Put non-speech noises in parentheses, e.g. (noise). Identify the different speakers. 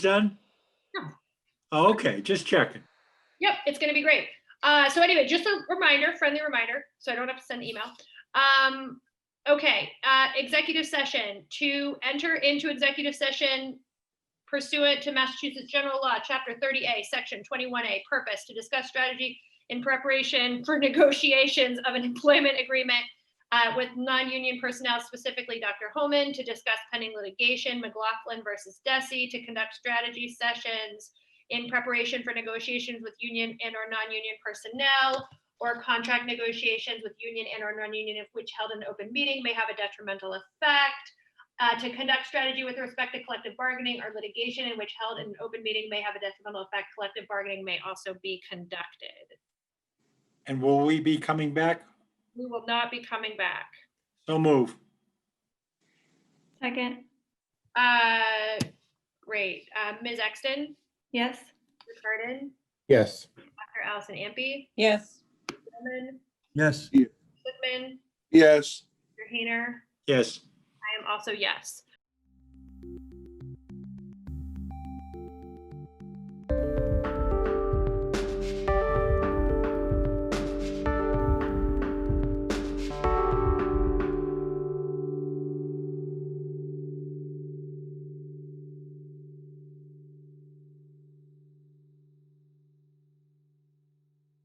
Speaker 1: done?
Speaker 2: No.
Speaker 1: Oh, okay, just checking.
Speaker 2: Yep, it's gonna be great. Uh, so anyway, just a reminder, friendly reminder, so I don't have to send email. Um, okay, uh, executive session, to enter into executive session pursuant to Massachusetts General Law, Chapter thirty A, Section twenty-one A, purpose to discuss strategy in preparation for (laughs) negotiations of an employment agreement uh, with non-union personnel, specifically Dr. Holman, to discuss pending litigation, McLaughlin versus Desi, to conduct strategy sessions in preparation for negotiations with union and or non-union personnel or contract negotiations with union and or non-union, if which held an open meeting may have a detrimental effect. Uh, to conduct strategy with respect to collective bargaining or litigation in which held in an open meeting may have a detrimental effect. Collective bargaining may also be conducted.
Speaker 1: And will we be coming back?
Speaker 2: We will not be coming back.
Speaker 1: So move.
Speaker 3: Second,
Speaker 2: Uh, great. Uh, Ms. Exton,
Speaker 3: yes.
Speaker 2: Ms. Harden,
Speaker 4: Yes.
Speaker 2: Dr. Allison Ampe,
Speaker 5: Yes.
Speaker 2: Bowman,
Speaker 1: Yes.
Speaker 2: Whitman,
Speaker 4: Yes.
Speaker 2: Mr. Hayner,
Speaker 1: Yes,
Speaker 2: I am also yes.